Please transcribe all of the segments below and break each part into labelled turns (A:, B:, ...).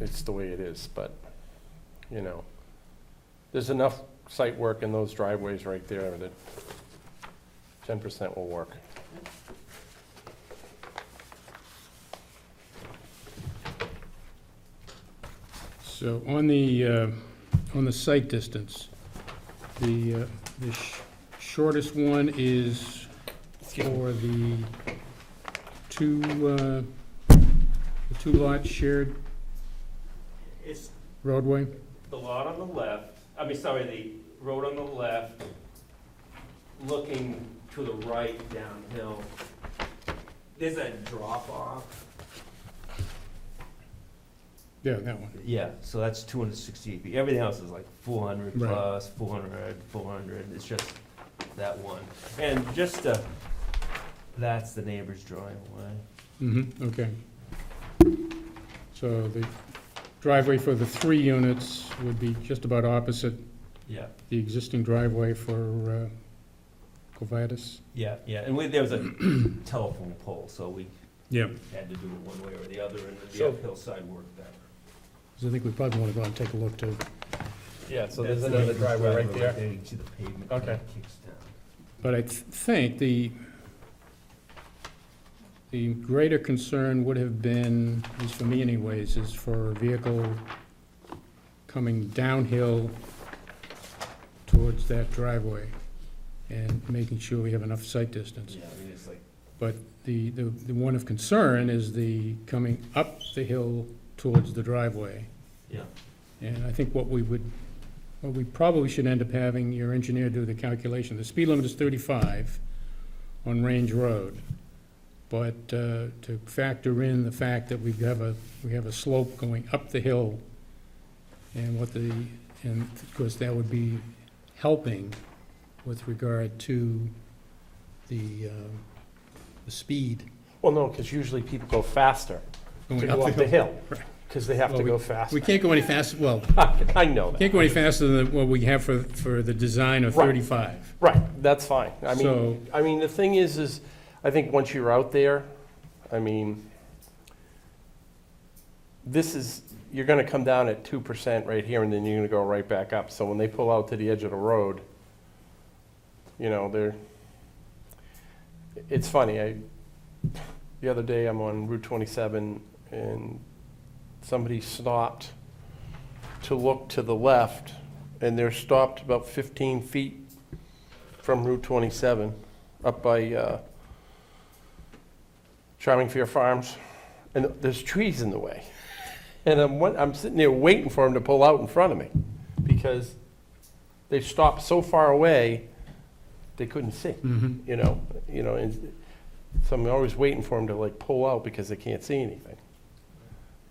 A: it's the way it is, but, you know, there's enough site work in those driveways right there that ten percent will work.
B: So on the, uh, on the site distance, the, uh, the sh- shortest one is for the two, uh, the two lot shared
C: It's
B: roadway?
C: the lot on the left, I mean, sorry, the road on the left, looking to the right downhill. There's a drop off.
B: Yeah, that one.
C: Yeah, so that's two hundred sixty-eight feet. Everything else is like four hundred
B: Right.
C: plus, four hundred, four hundred. It's just that one. And just, uh, that's the neighbor's driveway.
B: Mm-hmm, okay. So the driveway for the three units would be just about opposite
C: Yeah,
B: the existing driveway for uh, Covitas?
C: yeah, yeah. And we, there was a telephone pole, so we
B: Yeah.
C: had to do it one way or the other, and the
A: So-
C: uphill side worked better.
B: Because I think we probably want to go and take a look too.
A: Yeah, so there's
C: That's the
A: another
C: neighbor's
A: driveway right there.
C: You can see the pavement kind
A: Okay.
C: of kicks down.
B: But I th- think the, the greater concern would have been, at least for me anyways, is for a vehicle coming downhill towards that driveway and making sure we have enough sight distance.
C: Yeah, I mean, it's like,
B: But the, the, the one of concern is the coming up the hill towards the driveway.
C: yeah.
B: And I think what we would, what we probably should end up having your engineer do the calculation, the speed limit is thirty-five on Range Road. But uh, to factor in the fact that we have a, we have a slope going up the hill and what the, and of course, that would be helping with regard to the, uh, the speed
A: Well, no, because usually people go faster to
B: going
A: go up the hill,
B: Right.
A: because they have to
B: Well,
A: go
B: We
A: faster.
B: can't go any faster, well,
A: I know that.
B: can't go any faster than what we have for, for the design of
A: Right.
B: thirty-five.
A: Right, that's fine. I
B: So-
A: mean, I mean, the thing is, is I think once you're out there, I mean, this is, you're gonna come down at two percent right here and then you're gonna go right back up. So when they pull out to the edge of the road, you know, they're, it's funny, I, the other day I'm on Route twenty-seven and somebody stopped to look to the left and they're stopped about fifteen feet from Route 27, up by uh, Charming Fear Farms, and there's trees in the way. And I'm, wa- I'm sitting there waiting for him to pull out in front of me, because they stopped so far away, they couldn't see,
B: Mhm.
A: you know, you know, and so I'm always waiting for him to like pull out because they can't see anything.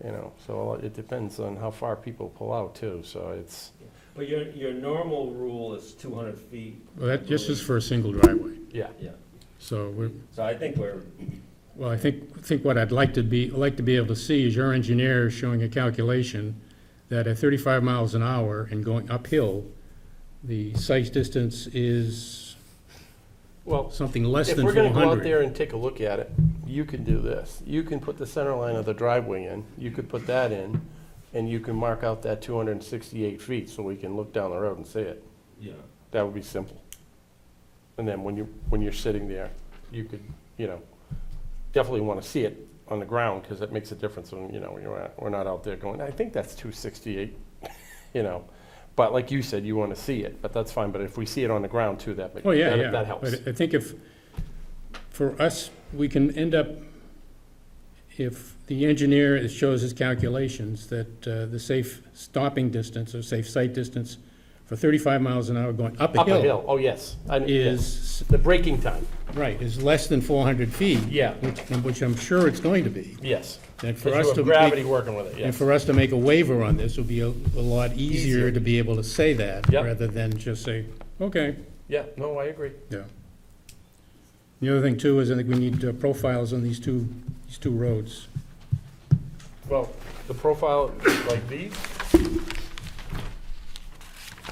A: You know, so it depends on how far people pull out too, so it's,
C: But your, your normal rule is two hundred feet.
B: Well, that just is for a single driveway,
A: yeah.
C: Yeah,
B: so we're,
C: so I think we're,
B: well, I think, I think what I'd like to be, like to be able to see is your engineer showing a calculation that at thirty-five miles an hour and going uphill, the sight distance is
A: Well,
B: something less
A: If
B: than
A: we're
B: four
A: gonna go out
B: hundred.
A: there and take a look at it, you can do this. You can put the center line of the driveway in, you could put that in, and you can mark out that two hundred and sixty-eight feet, so we can look down the road and see it.
C: yeah,
A: That would be simple. And then when you, when you're sitting there, you could, you know, definitely wanna see it on the ground, cause it makes a difference when, you know, you're, at- we're not out there going, I think that's two sixty-eight, you know. But like you said, you wanna see it, but that's fine, but if we see it on the ground too, that, ma-
B: Oh, yeah, yeah.
A: that, that helps.
B: But I think if, for us, we can end up, if the engineer is- shows his calculations that uh, the safe stopping distance or safe sight distance for thirty-five miles an hour going up a
A: Up a
B: hill
A: hill, oh, yes. I- yes.
B: is,
A: The braking time,
B: right, is less than four hundred feet.
A: Yeah.
B: Which, which I'm sure it's going to be.
A: yes.
B: And for
A: Because you
B: us
A: have
B: to
A: gravity
B: make,
A: working with it,
B: and
A: yes.
B: for us to make a waiver on this would be a, a lot easier
A: Easier.
B: to be able to say that
A: Yep.
B: rather than just say, okay.
A: Yeah, no, I agree.
B: Yeah. The other thing too is I think we need uh, profiles on these two, these two roads.
A: Well, the profile like these,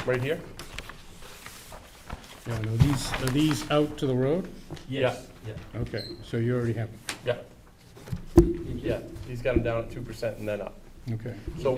A: right here?
B: Yeah, now these, are these out to the road?
C: yes, yeah.
B: Okay, so you already have them.
A: Yeah. Yeah, he's got them down at two percent and then up.
D: okay.
B: So